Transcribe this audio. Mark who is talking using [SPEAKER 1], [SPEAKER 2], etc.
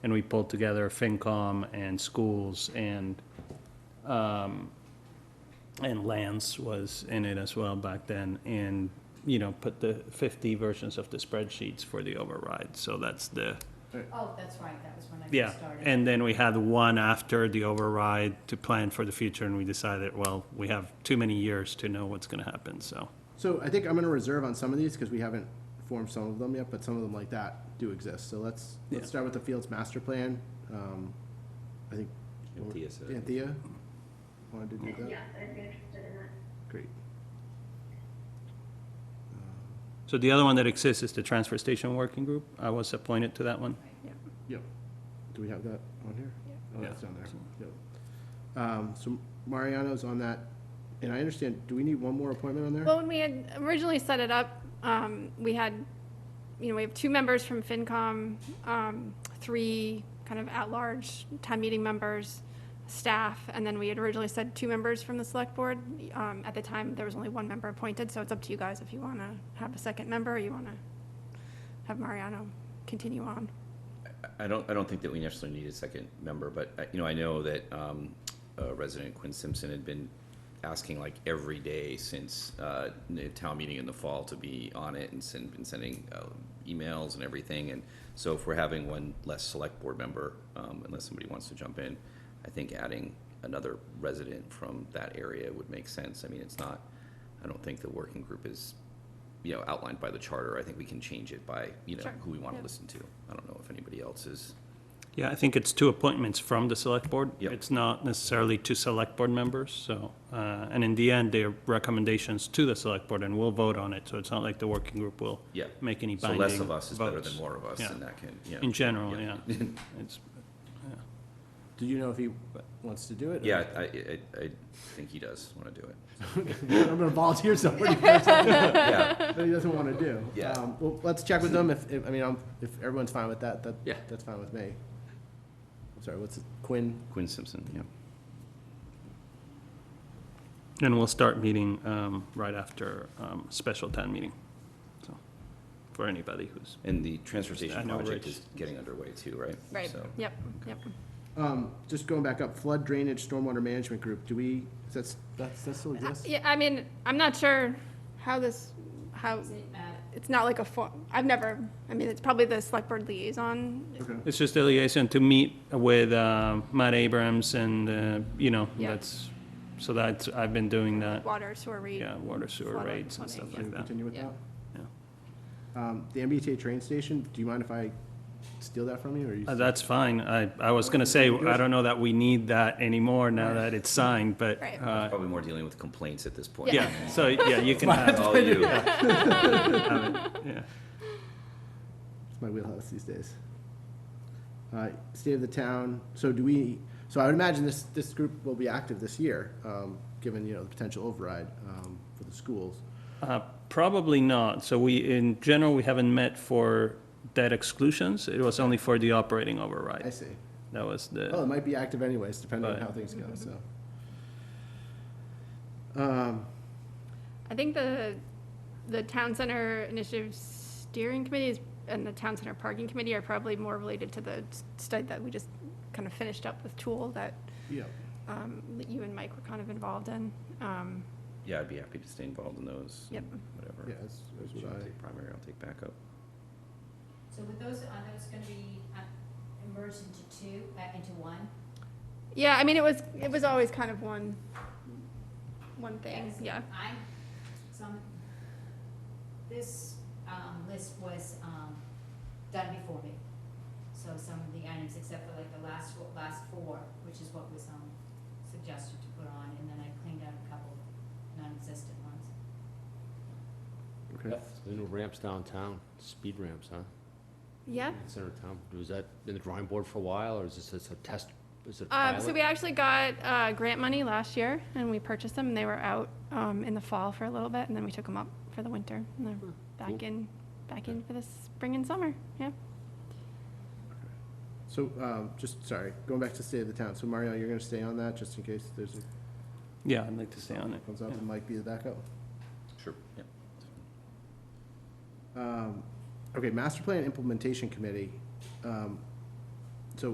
[SPEAKER 1] and we pulled together FinCom and schools and, um, and Lance was in it as well back then, and, you know, put the fifty versions of the spreadsheets for the override, so that's the,
[SPEAKER 2] Oh, that's right, that was when I
[SPEAKER 1] yeah.
[SPEAKER 2] first started.
[SPEAKER 1] And then we had one after the override to plan for the future, and we decided, well, we have too many years to know what's gonna happen, so.
[SPEAKER 3] So I think I'm gonna reserve on some of these, because we haven't formed some of them yet, but some of them like that do exist, so let's,
[SPEAKER 1] Yeah.
[SPEAKER 3] let's start with the Fields Master Plan, um, I think.
[SPEAKER 4] Anthea said it.
[SPEAKER 3] Anthea wanted to do that,
[SPEAKER 5] Yes, I'd be interested in that.
[SPEAKER 3] great.
[SPEAKER 1] So the other one that exists is the Transfer Station Working Group, I was appointed to that one.
[SPEAKER 3] Yep. Do we have that on here? Oh,
[SPEAKER 1] Yeah.
[SPEAKER 3] that's on there, yep. Um, so Mariano's on that, and I understand, do we need one more appointment on there?
[SPEAKER 6] Well, when we had originally set it up, um, we had, you know, we have two members from FinCom, um, three kind of at-large town meeting members, staff, and then we had originally said two members from the select board. Um, at the time, there was only one member appointed, so it's up to you guys if you want to have a second member, or you want to have Mariano continue on.
[SPEAKER 4] I don't, I don't think that we necessarily need a second member, but, uh, you know, I know that um, uh, resident Quinn Simpson had been asking like every day since uh, the town meeting in the fall to be on it and send, been sending uh, emails and everything. And so if we're having one less select board member, um, unless somebody wants to jump in, I think adding another resident from that area would make sense. I mean, it's not, I don't think the working group is, you know, outlined by the charter. I think we can change it by, you know,
[SPEAKER 6] Sure.
[SPEAKER 4] who we want to
[SPEAKER 6] Yeah.
[SPEAKER 4] listen to. I don't know if anybody else is.
[SPEAKER 1] Yeah, I think it's two appointments from the select board.
[SPEAKER 4] Yep.
[SPEAKER 1] It's not necessarily two select board members, so, uh, and in the end, they're recommendations to the select board, and we'll vote on it, so it's not like the working group will
[SPEAKER 4] Yeah.
[SPEAKER 1] make any
[SPEAKER 4] So
[SPEAKER 1] binding
[SPEAKER 4] less of us is better than
[SPEAKER 1] votes.
[SPEAKER 4] more of us,
[SPEAKER 1] Yeah.
[SPEAKER 4] and that can, yeah.
[SPEAKER 1] In general, yeah.
[SPEAKER 4] Yeah.
[SPEAKER 1] It's-
[SPEAKER 3] Do you know if he wants to do it? or-
[SPEAKER 4] Yeah, I, I, I- I think he does want to do it.
[SPEAKER 3] I'm gonna volunteer somebody.
[SPEAKER 4] Yeah,
[SPEAKER 3] that he doesn't want to do.
[SPEAKER 4] Yeah.
[SPEAKER 3] Um, Well, let's check with them if, if, I mean, I'm- if everyone's fine with that, that,
[SPEAKER 4] Yeah.
[SPEAKER 3] that's fine with me. I'm sorry, what's it, Quinn?
[SPEAKER 4] Quinn Simpson, yeah.
[SPEAKER 1] And we'll start meeting um, right after um, special town meeting, so, for anybody who's,
[SPEAKER 4] And the transportation
[SPEAKER 1] I know
[SPEAKER 4] project
[SPEAKER 1] Rich.
[SPEAKER 4] is getting underway too, right? So,
[SPEAKER 6] Yep, yep.
[SPEAKER 3] Um, just going back up, flood drainage stormwater management group, do we, is that's, that's, that still exists?
[SPEAKER 6] Uh, Yeah, I mean, I'm not sure how this, how,
[SPEAKER 2] Does it matter?
[SPEAKER 6] it's not like a form, I've never, I mean, it's probably the select board liaison
[SPEAKER 3] Okay.
[SPEAKER 1] it's just a liaison to meet with um, Matt Abrams and, uh, you know,
[SPEAKER 6] Yeah.
[SPEAKER 1] that's, so that's, I've been doing that,
[SPEAKER 6] water sewer rate.
[SPEAKER 1] yeah, water sewer
[SPEAKER 6] Water,
[SPEAKER 1] rates and
[SPEAKER 6] plumbing,
[SPEAKER 1] stuff
[SPEAKER 3] Should
[SPEAKER 1] like
[SPEAKER 3] we
[SPEAKER 1] that.
[SPEAKER 3] continue with
[SPEAKER 6] Yeah.
[SPEAKER 3] that? Um, the MBTA train station, do you mind if I steal that from you, or you?
[SPEAKER 1] Uh, That's fine. I, I was gonna say, I don't know that we need that anymore now that it's signed, but,
[SPEAKER 6] Right.
[SPEAKER 1] uh,
[SPEAKER 4] Probably more dealing with complaints at this point.
[SPEAKER 1] yeah, so, yeah, you can have,
[SPEAKER 4] All you,
[SPEAKER 1] have it, yeah.
[SPEAKER 3] It's my wheelhouse these days. Uh, state of the town, so do we, so I would imagine this, this group will be active this year, um, given, you know, the potential override, um, for the schools.
[SPEAKER 1] Uh, Probably not. So we, in general, we haven't met for debt exclusions. It was only for the operating
[SPEAKER 3] I Oh.
[SPEAKER 1] override.
[SPEAKER 3] see.
[SPEAKER 1] That was
[SPEAKER 3] Well, it
[SPEAKER 1] the,
[SPEAKER 3] might be active anyways, depending on
[SPEAKER 1] Right.
[SPEAKER 3] how things go, so. Um,
[SPEAKER 6] I think the, the town center initiative steering committee is, and the town center parking committee are probably more related to the study that we just kind of finished up with Tool that,
[SPEAKER 3] yeah,
[SPEAKER 6] um, that you and Mike were kind of involved in. Um,
[SPEAKER 4] yeah, I'd be happy to stay involved in those. and
[SPEAKER 6] Yep.
[SPEAKER 4] Whatever.
[SPEAKER 3] yeah, that's, that's
[SPEAKER 4] She'll
[SPEAKER 3] what I,
[SPEAKER 4] take primary, I'll take backup.
[SPEAKER 2] So with those, are those gonna be uh, merged into two, back into one?
[SPEAKER 6] Yeah, I mean, it was, it was always kind of one, one thing,
[SPEAKER 2] Yes.
[SPEAKER 6] yeah.
[SPEAKER 2] I, some, this, um, list was, um, done before me. So some of the items, except for like the last, fo- last four, which is what was, um, suggested to put on, and then I cleaned out a couple non-existent ones.
[SPEAKER 3] okay.
[SPEAKER 7] The new ramps downtown, speed ramps, huh?
[SPEAKER 6] Yeah.
[SPEAKER 7] In center of town. Was that in the drawing board for a while, or is this just a test, is it a
[SPEAKER 6] Um, so we
[SPEAKER 7] pilot?
[SPEAKER 6] actually got, uh, grant money last year and we purchased them and they were out, um, in the fall for a little bit and then we took them up for the winter and they're back
[SPEAKER 7] Hmm. cool.
[SPEAKER 6] in, back in for the spring and summer, yeah.
[SPEAKER 3] So, um, just, sorry, going back to state of the town, so Mario, you're gonna stay on that, just in case there's, a
[SPEAKER 1] yeah, I'd like to stay on it.
[SPEAKER 3] comes up
[SPEAKER 1] yeah.
[SPEAKER 3] and Mike be the backup?
[SPEAKER 4] Sure, yeah.
[SPEAKER 3] Um, okay, master plan implementation committee, um,